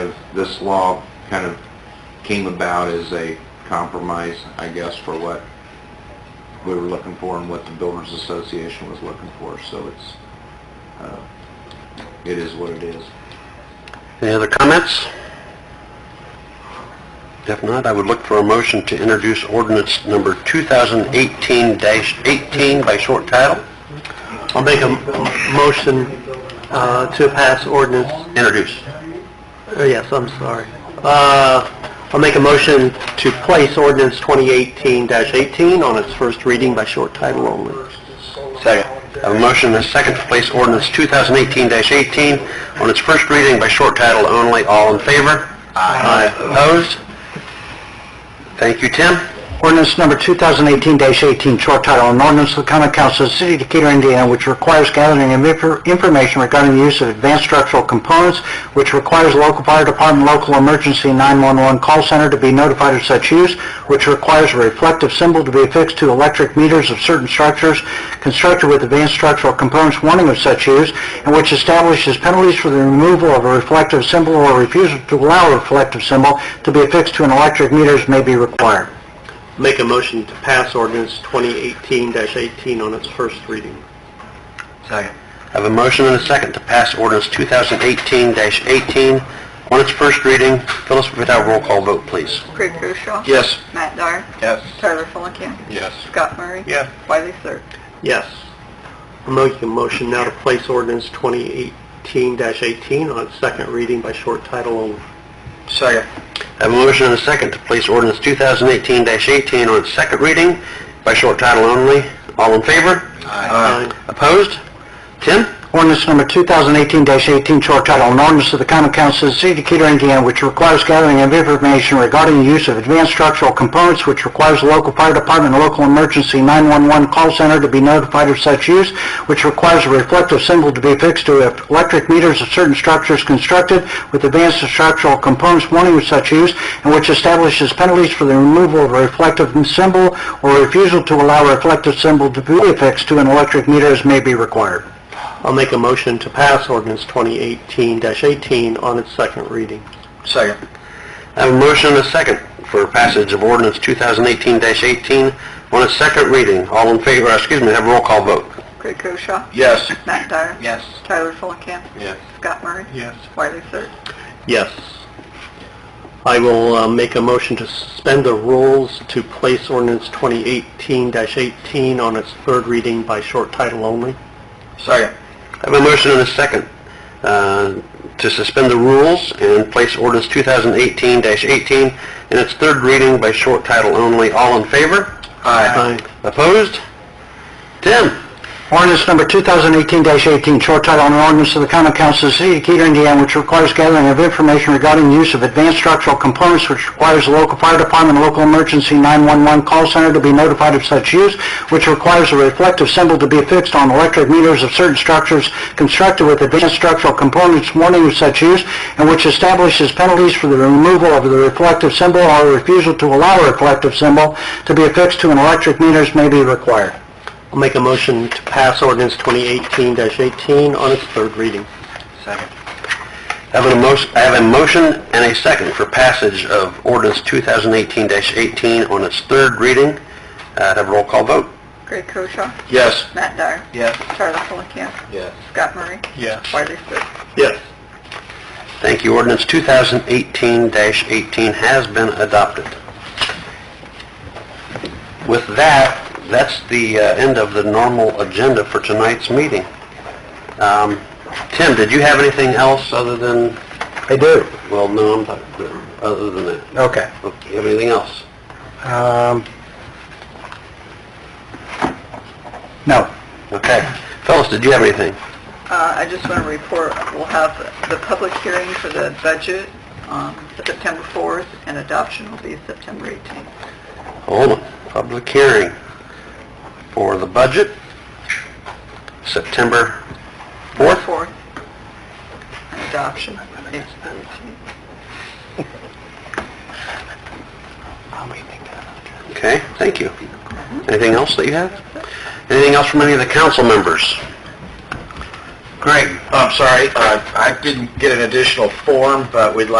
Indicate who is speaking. Speaker 1: As This law kind of came about as a compromise, I guess, for what we were looking for and what the Builders Association was looking for, so it's, uh, it is what it is.
Speaker 2: Any other comments? If not, I would look for a motion to introduce ordinance number 2018-18 by short title.
Speaker 3: I'll make a m- motion uh, to pass ordinance,
Speaker 2: Introduce.
Speaker 3: uh, yes, I'm sorry. Uh, I'll make a motion to place ordinance 2018-18 on its first reading by short title only.
Speaker 2: Second. I have a motion and a second to place ordinance 2018-18 on its first reading by short title only. All in favor? Aye. Opposed? Thank you, Tim.
Speaker 4: Ordinance number 2018-18, short title, an ordinance of the common council of the city of Decatur, Indiana, which requires gathering of infor- information regarding the use of advanced structural components, which requires local fire department, local emergency 911 call center to be notified of such use, which requires a reflective symbol to be affixed to electric meters of certain structures constructed with advanced structural components warning of such use, and which establishes penalties for the removal of a reflective symbol or refusal to allow a reflective symbol to be affixed to an electric meters may be required.
Speaker 3: Make a motion to pass ordinance 2018-18 on its first reading.
Speaker 2: Second. I have a motion and a second to pass ordinance 2018-18 on its first reading. Phyllis, if we could have a roll call vote, please.
Speaker 5: Craig Koshaw.
Speaker 2: Yes.
Speaker 5: Matt Dyer.
Speaker 1: Yes.
Speaker 5: Tyler Fulenkamp.
Speaker 1: Yes.
Speaker 5: Scott Murray.
Speaker 1: Yes.
Speaker 5: Wiley Sir.
Speaker 3: Yes. I'll make a motion now to place ordinance 2018-18 on its second reading by short title only.
Speaker 2: Second. I have a motion and a second to place ordinance 2018-18 on its second reading by short title only. All in favor?
Speaker 3: Aye.
Speaker 2: Opposed? Tim?
Speaker 4: Ordinance number 2018-18, short title, an ordinance of the common council of the city of Decatur, Indiana, which requires gathering of information regarding the use of advanced structural components, which requires the local fire department and local emergency 911 call center to be notified of such use, which requires a reflective symbol to be affixed to electric meters of certain structures constructed with advanced structural components warning of such use, and which establishes penalties for the removal of a reflective symbol or refusal to allow a reflective symbol to be affixed to an electric meter as may be required.
Speaker 3: I'll make a motion to pass ordinance 2018-18 on its second reading.
Speaker 2: Second. I have a motion and a second for passage of ordinance 2018-18 on its second reading. All in favor, uh, excuse me, have a roll call vote.
Speaker 5: Craig Koshaw.
Speaker 2: Yes.
Speaker 5: Matt Dyer.
Speaker 1: Yes.
Speaker 5: Tyler Fulenkamp.
Speaker 1: Yes.
Speaker 5: Scott Murray.
Speaker 3: Yes.
Speaker 5: Wiley Sir.
Speaker 3: Yes. I will uh, make a motion to suspend the rules to place ordinance 2018-18 on its third reading by short title only.
Speaker 2: Second. I have a motion and a second uh, to suspend the rules and place ordinance 2018-18 in its third reading by short title only. All in favor?
Speaker 3: Aye.
Speaker 2: Opposed? Tim?
Speaker 4: Ordinance number 2018-18, short title, an ordinance of the common council of the city of Decatur, Indiana, which requires gathering of information regarding the use of advanced structural components, which requires the local fire department, and local emergency 911 call center to be notified of such use, which requires a reflective symbol to be affixed on electric meters of certain structures constructed with advanced structural components warning of such use, and which establishes penalties for the removal of the reflective symbol or refusal to allow a reflective symbol to be affixed to an electric meters may be required.
Speaker 3: I'll make a motion to pass ordinance 2018-18 on its third reading.
Speaker 2: Second. I have a motion, I have a motion and a second for passage of ordinance 2018-18 on its third reading. Uh, Have a roll call vote.
Speaker 5: Craig Koshaw.
Speaker 2: Yes.
Speaker 5: Matt Dyer.
Speaker 1: Yes.
Speaker 5: Tyler Fulenkamp.
Speaker 1: Yes.
Speaker 5: Scott Murray.
Speaker 3: Yes.
Speaker 5: Wiley Sir.
Speaker 3: Yes.
Speaker 2: Thank you. Ordinance 2018-18 has been adopted. With that, that's the uh, end of the normal agenda for tonight's meeting. Um, Tim, did you have anything else other than... I do. Well, no, I'm not, other than that.
Speaker 4: Okay.
Speaker 2: Do you have anything else?
Speaker 4: Um, no.
Speaker 2: Okay. Phyllis, did you have anything?
Speaker 5: Uh, I just want to report, we'll have the public hearing for the budget on September 4th, and adoption will be September 18th.
Speaker 2: Hold on. Public hearing for the budget, September 4th?
Speaker 5: 4th. And adoption, April 18th.
Speaker 2: Okay, thank you. Anything else that you have? Anything else from any of the council members?
Speaker 1: uh, Greg, I'm sorry, I didn't get an additional form, but we'd like